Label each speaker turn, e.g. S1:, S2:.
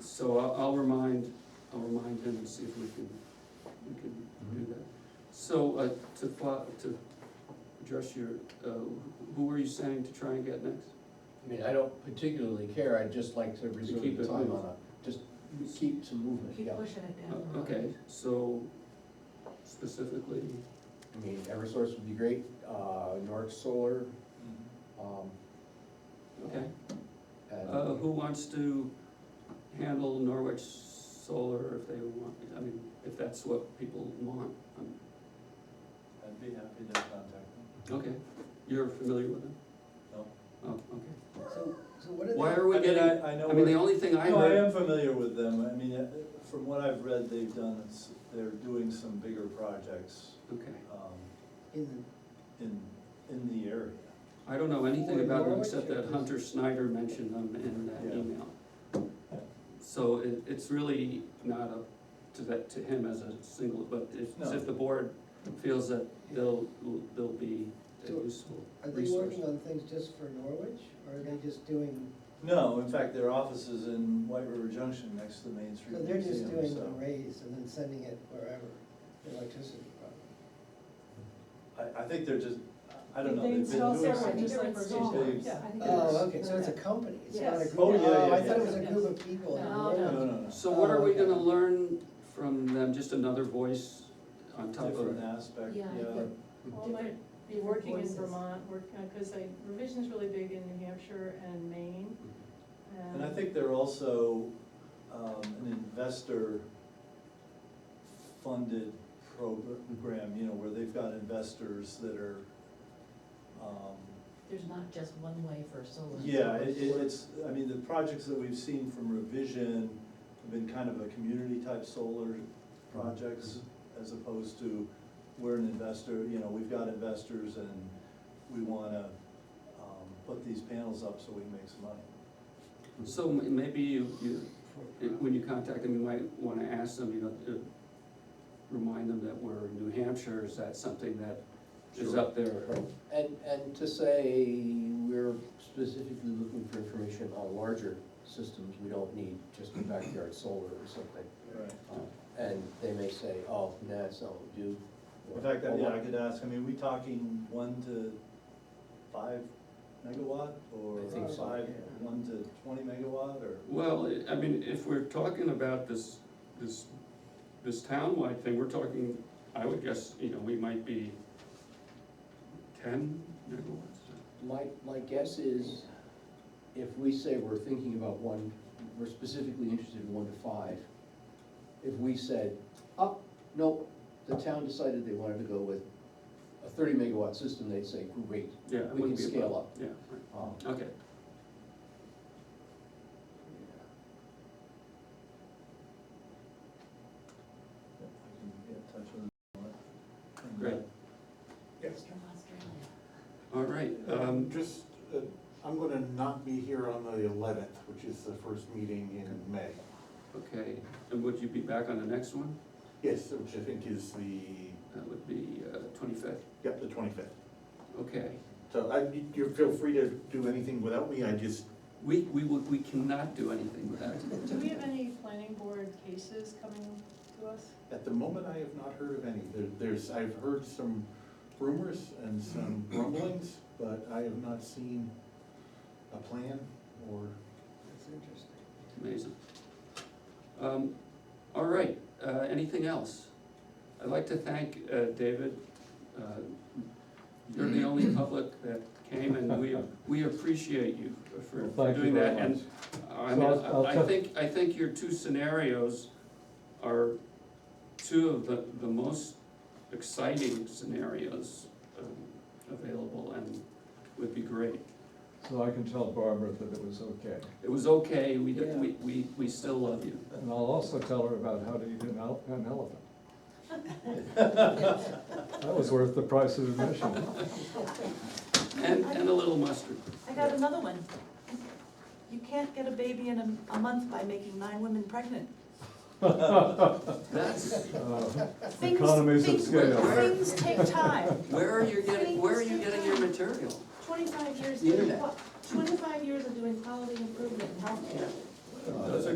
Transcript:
S1: So I'll, I'll remind, I'll remind him and see if we can, we can do that. So, uh, to, fo- to address your, uh, who were you saying to try and get next?
S2: I mean, I don't particularly care, I'd just like to reserve
S1: keep
S2: the
S1: it
S2: time
S1: moving.
S2: on a, just keep some movement,
S3: Keep
S2: yeah.
S3: pushing it down.
S1: Uh, Okay, so specifically,
S2: I mean, Eversource would be great, uh, Nordic Solar, um.
S1: okay.
S2: and-
S1: Mm-hmm. Uh, who wants to handle Norwich Solar if they want, I mean, if that's what people want? Um,
S4: I'd be happy to contact them.
S1: Okay, you're familiar with them?
S4: No.
S1: Oh, okay.
S5: So, so what are
S1: Why
S5: the,
S1: are we
S4: I mean,
S1: getting,
S4: I- I know
S1: I mean, the
S4: we're-
S1: only thing I
S4: No, I
S1: heard,
S4: am familiar with them, I mean, uh, from what I've read, they've done, s- they're doing some bigger projects,
S1: okay,
S4: um,
S5: is it,
S4: in, in the area.
S1: I don't know anything
S5: Wait,
S1: about them
S5: Norwich
S1: except
S5: or
S1: that
S5: just-
S1: Hunter Snyder mentioned them in that
S4: Yeah.
S1: email. So it, it's really not up to that, to him as a single, but if,
S4: No.
S1: if the board feels that they'll, they'll be a
S5: So,
S1: useful
S5: are they
S1: resource.
S5: working on things just for Norwich, or are they just doing,
S4: No, in fact, their office is in White River Junction, next to the Main
S5: so
S4: Street
S5: they're just
S4: Museum,
S5: doing the
S4: so.
S5: raise and then sending it wherever, the electricity problem?
S4: I, I think they're just, I don't know,
S6: They
S4: they've been
S6: install
S4: doing
S6: separate,
S4: some.
S6: just like
S3: install
S6: we're
S4: things.
S6: yeah. I think
S5: Oh,
S6: it's-
S5: okay, so it's a company, it's not a
S6: Yes.
S5: group.
S4: Oh, yeah, yeah,
S5: I thought it
S4: yeah.
S5: was a group of people. in
S3: No,
S4: No,
S5: Norwich.
S4: no, no,
S1: So what are we
S5: Oh,
S1: gonna
S5: okay.
S1: learn from them, just another voice on top of?
S4: different aspect,
S3: Yeah, I
S4: yeah.
S3: think-
S6: Well, might be working in
S3: Voices.
S6: Vermont, work, because like revision's really big in New Hampshire and Maine.
S4: And I think they're also um, an investor-funded program, you know, where they've got investors that are, um,
S3: There's not just one way for solar.
S4: yeah, it- it- it's, I mean, the projects that we've seen from Revision have been kind of a community-type solar projects as opposed to, we're an investor, you know, we've got investors and we wanna um, put these panels up so we can make some money.
S1: So m- maybe you, you, it- when you contact them, you might wanna ask them, you know, to remind them that we're in New Hampshire, is that something that is
S2: Sure.
S1: up there?
S2: And, and to say, we're specifically looking for information on larger systems, we don't need just a backyard solar or something.
S4: Right.
S2: Um, And they may say, oh, nah, it's not what we do.
S4: In fact, I-
S2: Or-
S4: yeah, I could ask, I mean, we talking one to five megawatt or
S2: I think so,
S4: five,
S2: yeah.
S4: one to twenty megawatt or?
S1: Well, I- I mean, if we're talking about this, this, this townwide thing, we're talking, I would guess, you know, we might be ten megawatts.
S2: My, my guess is, if we say we're thinking about one, we're specifically interested in one to five, if we said, oh, no, the town decided they wanted to go with a thirty megawatt system, they'd say, great,
S1: Yeah. it
S2: we can
S1: wouldn't be a
S2: scale
S1: problem.
S2: up.
S1: Yeah,
S2: Um,
S1: right. okay.
S4: I can get in touch with them on it. And, uh,
S1: Great.
S3: It's from Australia.
S1: All right, um,
S7: Um, just, uh, I'm gonna not be here on the eleventh, which is the first meeting in May.
S1: okay, and would you be back on the next one?
S7: Yes, which I think is the,
S1: That would be uh, twenty-fifth,
S7: yep, the twenty-fifth.
S1: okay.
S7: So I, you feel free to do anything without me, I just,
S1: We, we would, we cannot do anything without you.
S6: Do we have any planning board cases coming to us?
S7: at the moment, I have not heard of any. There, there's, I've heard some rumors and some rumblings, but I have not seen a plan or
S5: That's interesting.
S1: Amazing. Um, All right, uh, anything else? I'd like to thank uh, David. Uh, You're the only public that came and we, we appreciate you for for
S8: Thank you
S1: doing that.
S8: very much.
S1: And uh, I
S8: So
S1: mean,
S8: I'll- I'll
S1: I I
S8: tell-
S1: think, I think your two scenarios are two of the, the most exciting scenarios um, available and would be great.
S8: So I can tell Barbara that it was okay.
S1: It was okay, we, did- we, we, we still love you.
S8: And I'll also tell her about how to eat an el- an elephant. That was worth the price of admission.
S1: And, and a little mustard.
S9: I got another one. You can't get a baby in a, a month by making nine women pregnant.
S1: That's,
S8: Uh,
S9: Things-
S8: Economies of
S9: things-
S8: scale.
S9: Things take time.
S1: where are you getting, where are you getting your material?
S9: Twenty-five years,
S2: The internet.
S9: twenty-five years of doing quality improvement in healthcare.
S4: Those are